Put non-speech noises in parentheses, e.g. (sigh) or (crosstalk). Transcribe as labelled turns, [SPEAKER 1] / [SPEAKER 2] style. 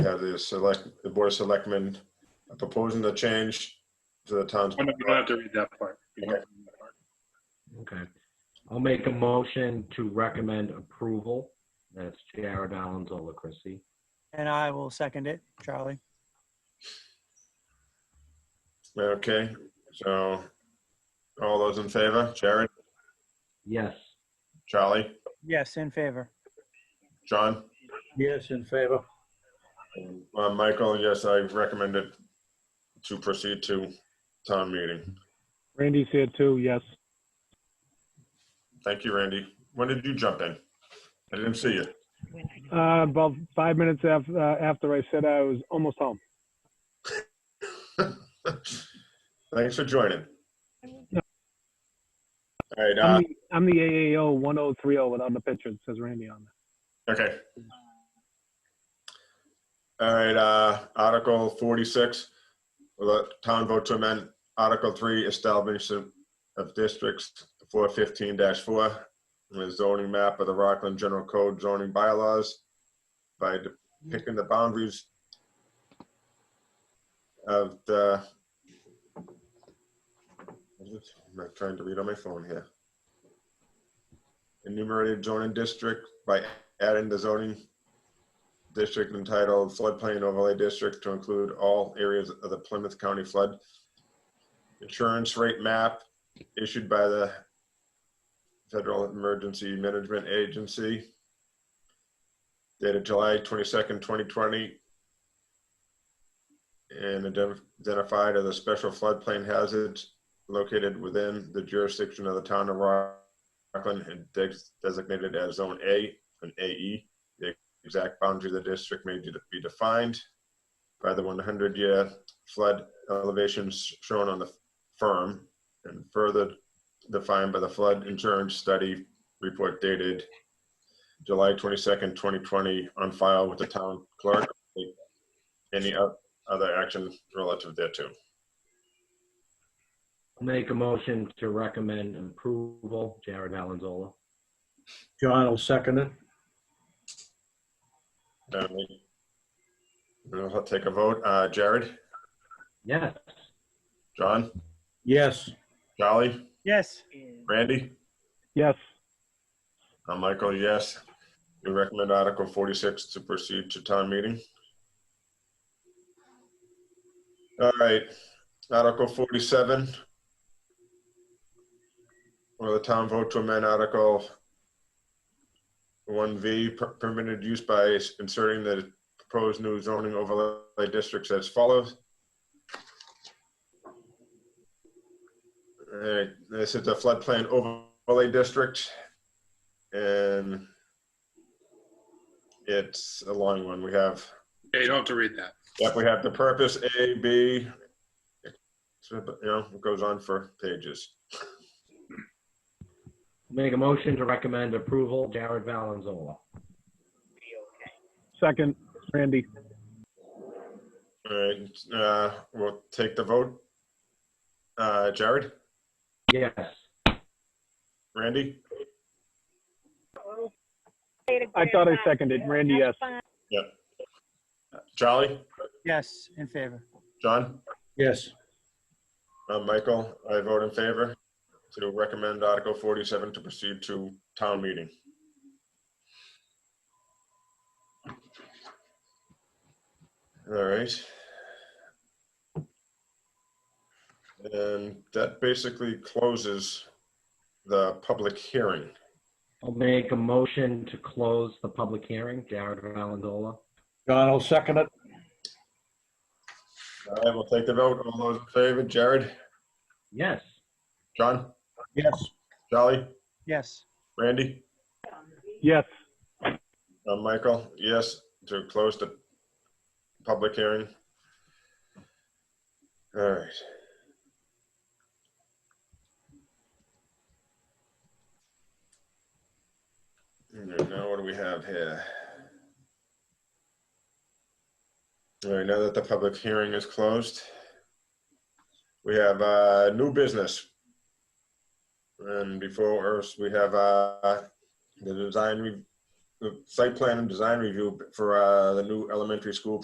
[SPEAKER 1] Yeah, the select, the board of selectmen are proposing the change to the town's.
[SPEAKER 2] Oh, no, You don't have to read that part. You don't have to read that part.
[SPEAKER 3] Okay. I'll make a motion to recommend approval. That's Jared Alonzola Chrissy.
[SPEAKER 4] And I will second it, Charlie.
[SPEAKER 1] Okay, so all those in favor, Jared,
[SPEAKER 3] Yes.
[SPEAKER 1] Charlie,
[SPEAKER 4] Yes, in favor.
[SPEAKER 1] John,
[SPEAKER 5] Yes, in favor.
[SPEAKER 1] and, uh, Michael, yes, I recommend it to proceed to town meeting.
[SPEAKER 6] Randy's here too, yes.
[SPEAKER 1] Thank you, Randy. When did you jump in? I didn't see you.
[SPEAKER 6] Uh, about five minutes after, uh, after I said I was almost home.
[SPEAKER 1] (laughs) Thanks for joining. All right, uh,
[SPEAKER 6] I'm the, I'm the AAO 1030 without the picture. It says Randy on it.
[SPEAKER 1] Okay. All right, uh, Article forty-six, will the town vote to amend Article three, establishment of districts four fifteen four, the zoning map of the Rockland General Code zoning bylaws by depicting the boundaries of the I'm not trying to read on my phone here. Enumerated zoning district by adding the zoning district entitled floodplain overlay district to include all areas of the Plymouth County flood insurance rate map issued by the Federal Emergency Management Agency dated July 22nd, 2020 and ident- identified as a special floodplain hazard located within the jurisdiction of the town of Rockland and des- designated as Zone A an AE. The exact boundary of the district may de- be defined by the 100-year flood elevations shown on the firm and further defined by the flood insurance study report dated July 22nd, 2020, on file with the town clerk. Any o- other action relative thereto?
[SPEAKER 3] I'll make a motion to recommend approval. Jared Alonzola.
[SPEAKER 5] John will second it.
[SPEAKER 1] Um, We'll take a vote. Uh, Jared,
[SPEAKER 3] Yes.
[SPEAKER 1] John,
[SPEAKER 5] Yes,
[SPEAKER 1] Jolly,
[SPEAKER 4] Yes,
[SPEAKER 1] Randy?
[SPEAKER 6] Yes.
[SPEAKER 1] Uh, Michael, yes. We recommend Article 46 to proceed to town meeting. All right, Article 47. Will the town vote to amend Article 1V per- permitted use by inserting the proposed new zoning overlay districts as follows? All right, this is the floodplain overlay district. And it's a long one. We have,
[SPEAKER 2] Yeah, you don't have to read that.
[SPEAKER 1] yep, we have the purpose, A, B. So, but, You know, it goes on for pages.
[SPEAKER 3] Make a motion to recommend approval. Jared Valenzola.
[SPEAKER 6] Second, Randy.
[SPEAKER 1] All right, uh, we'll take the vote. Uh, Jared,
[SPEAKER 3] Yes.
[SPEAKER 1] Randy?
[SPEAKER 6] I thought I seconded. Randy, yes.
[SPEAKER 1] Yep. Charlie,
[SPEAKER 4] yes, in favor.
[SPEAKER 1] John,
[SPEAKER 5] yes,
[SPEAKER 1] uh, Michael, I vote in favor to recommend Article 47 to proceed to town meeting. All right. And that basically closes the public hearing.
[SPEAKER 3] I'll make a motion to close the public hearing. Jared Valenzola.
[SPEAKER 5] John will second it.
[SPEAKER 1] I will take the vote. All those in favor, Jared,
[SPEAKER 3] Yes.
[SPEAKER 1] John,
[SPEAKER 5] Yes,
[SPEAKER 1] Jolly,
[SPEAKER 4] Yes,
[SPEAKER 1] Randy,
[SPEAKER 6] Yes.
[SPEAKER 1] uh, Michael, yes, to close the public hearing. All right. All right, Now, what do we have here? All right, now that the public hearing is closed, we have uh, new business. And before us, we have uh, the design, re- the site plan and design review for uh, the new elementary school